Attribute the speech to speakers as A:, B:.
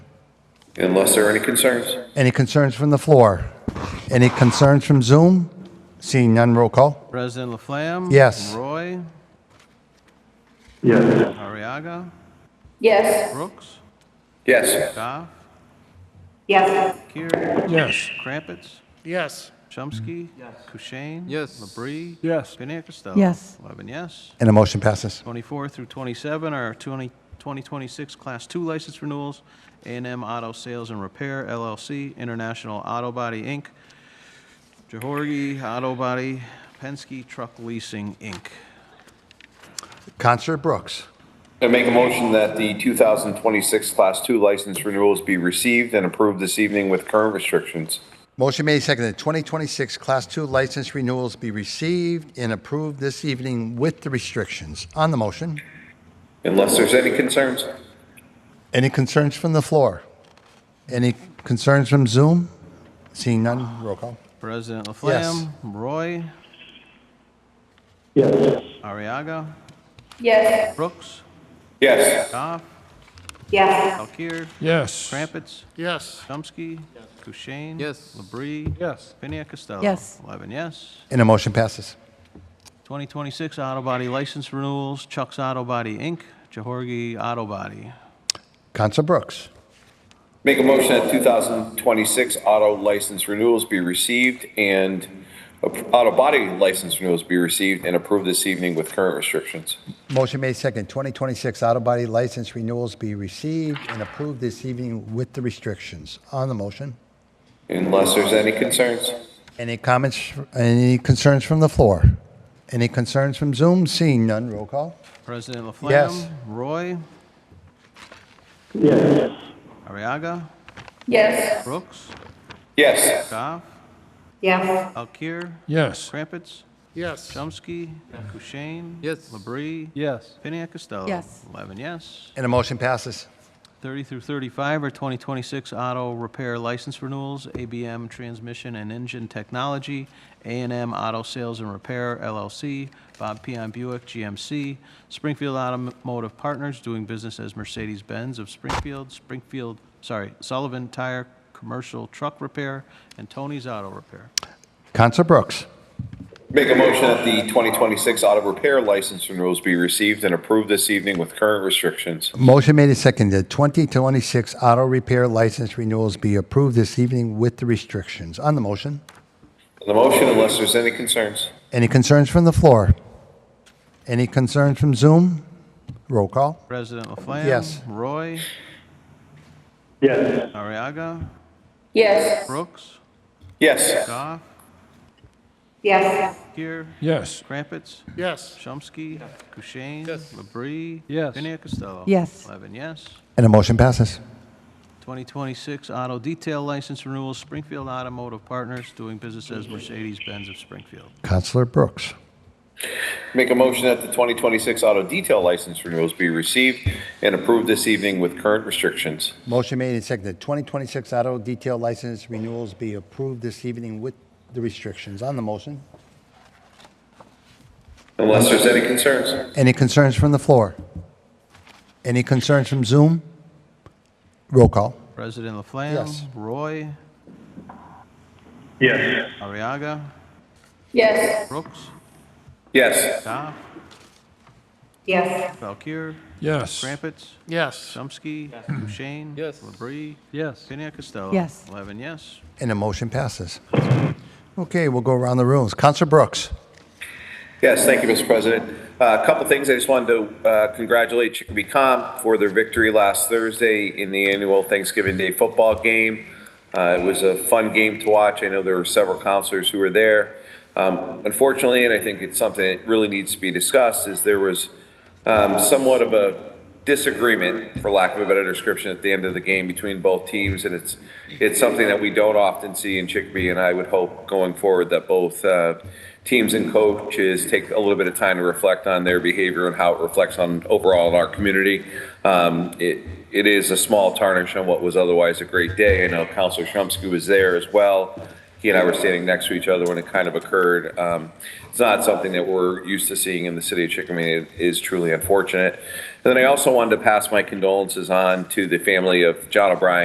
A: Unless there are any concerns?
B: Any concerns from the floor? Any concerns from Zoom? Seeing none, roll call.
C: President Laflamme?
B: Yes.
C: Roy?
D: Yes.
C: Ariaga?
E: Yes.
C: Brooks?
A: Yes.
C: Goff?
E: Yes.
C: Curie?
F: Yes.
C: Crumpets?
F: Yes.
C: Chomsky? Yes. Kushein?
G: Yes.
C: Labrie?
F: Yes.
C: Piniac Costello?
H: Yes.
C: Eleven yes.
B: And the motion passes.
C: 24 through 27 are 20 2026 Class 2 license renewals, a and m Auto Sales and Repair LLC, International Auto Body, Inc., Johorgi Auto Body, Penske Truck Leasing, Inc.
B: Counselor Brooks.
A: I make a motion that the 2026 Class 2 license renewals be received and approved this evening with current restrictions.
B: Motion made, seconded. 2026 Class 2 license renewals be received and approved this evening with the restrictions. On the motion,
A: Unless there's any concerns?
B: any concerns from the floor? Any concerns from Zoom? Seeing none, roll call.
C: President Laflamme? Roy?
D: Yes.
C: Ariaga?
E: Yes.
C: Brooks?
A: Yes.
C: Goff?
E: Yes.
C: Valkir?
F: Yes.
C: Crumpets?
F: Yes.
C: Chomsky? Kushein?
G: Yes.
C: Labrie?
F: Yes.
C: Piniac Costello?
H: Yes.
C: 11 yes.
B: And the motion passes.
C: 2026 Auto Body License Renewals, Chuck's Auto Body, Inc., Johorgi Auto Body.
B: Counselor Brooks.
A: Make a motion that 2026 auto license renewals be received and ap- auto body license renewals be received and approved this evening with current restrictions.
B: Motion made, seconded. 2026 auto body license renewals be received and approved this evening with the restrictions. On the motion,
A: Unless there's any concerns?
B: any comments, any concerns from the floor? Any concerns from Zoom? Seeing none, roll call.
C: President Laflamme?
B: Yes.
C: Roy?
D: Yes.
C: Ariaga?
E: Yes.
C: Brooks?
A: Yes.
C: Goff?
E: Yes.
C: Alkir?
F: Yes.
C: Crumpets?
F: Yes.
C: Chomsky? Kushein?
G: Yes.
C: Labrie?
F: Yes.
C: Piniac Costello?
H: Yes.
C: 11 yes.
B: And the motion passes.
C: 30 through 35 are 2026 auto repair license renewals, ABM Transmission and Engine Technology, a and m Auto Sales and Repair LLC, Bob Pion Buick GMC, Springfield Automotive Partners, doing business as Mercedes-Benz of Springfield, Springfield, sorry, Sullivan Tire Commercial Truck Repair, and Tony's Auto Repair.
B: Counselor Brooks.
A: Make a motion that the 2026 auto repair license renewals be received and approved this evening with current restrictions.
B: Motion made and seconded. 2026 auto repair license renewals be approved this evening with the restrictions. On the motion,
A: On the motion, unless there's any concerns?
B: any concerns from the floor? Any concerns from Zoom? Roll call.
C: President Laflamme?
B: Yes.
C: Roy?
D: Yes.
C: Ariaga?
E: Yes.
C: Brooks?
A: Yes.
C: Goff?
E: Yes.
C: Here?
F: Yes.
C: Crumpets?
F: Yes.
C: Chomsky. Kushein.
G: Yes.
C: Labrie.
F: Yes.
C: Piniac Costello.
H: Yes.
C: 11 yes.
B: And the motion passes.
C: 2026 Auto Detail License Renewal, Springfield Automotive Partners, doing business as Mercedes-Benz of Springfield.
B: Counselor Brooks.
A: Make a motion that the 2026 auto detail license renewals be received and approved this evening with current restrictions.
B: Motion made and seconded. 2026 auto detail license renewals be approved this evening with the restrictions. On the motion,
A: Unless there's any concerns?
B: any concerns from the floor? Any concerns from Zoom? Roll call.
C: President Laflamme?
B: Yes.
C: Roy?
D: Yes.
C: Ariaga?
E: Yes.
C: Brooks?
A: Yes.
C: Goff?
E: Yes.
C: Valkir?
F: Yes.
C: Crumpets?
F: Yes.
C: Chomsky. Kushein.
G: Yes.
C: Labrie.
F: Yes.
C: Piniac Costello.
H: Yes.
C: 11 yes.
B: And the motion passes. Okay, we'll go around the rooms. Counselor Brooks.
A: Yes, thank you, Mr. President. Uh, A couple things, I just wanted to uh, congratulate Chicopee Comp for their victory last Thursday in the annual Thanksgiving Day football game. Uh, It was a fun game to watch, I know there were several counselors who were there. Um, Unfortunately, and I think it's something that really needs to be discussed, is there was um, somewhat of a disagreement, for lack of a better description, at the end of the game between both teams, and it's, it's something that we don't often see in Chicopee, and I would hope going forward that both uh, teams and coaches take a little bit of time to reflect on their behavior and how it reflects on overall in our community. Um, It, it is a small tarnish on what was otherwise a great day. I know Counselor Shumsky was there as well. He and I were standing next to each other when it kind of occurred. Um, It's not something that we're used to seeing in the city of Chicopee. It is truly unfortunate. And then I also wanted to pass my condolences on to the family of John O'Brien.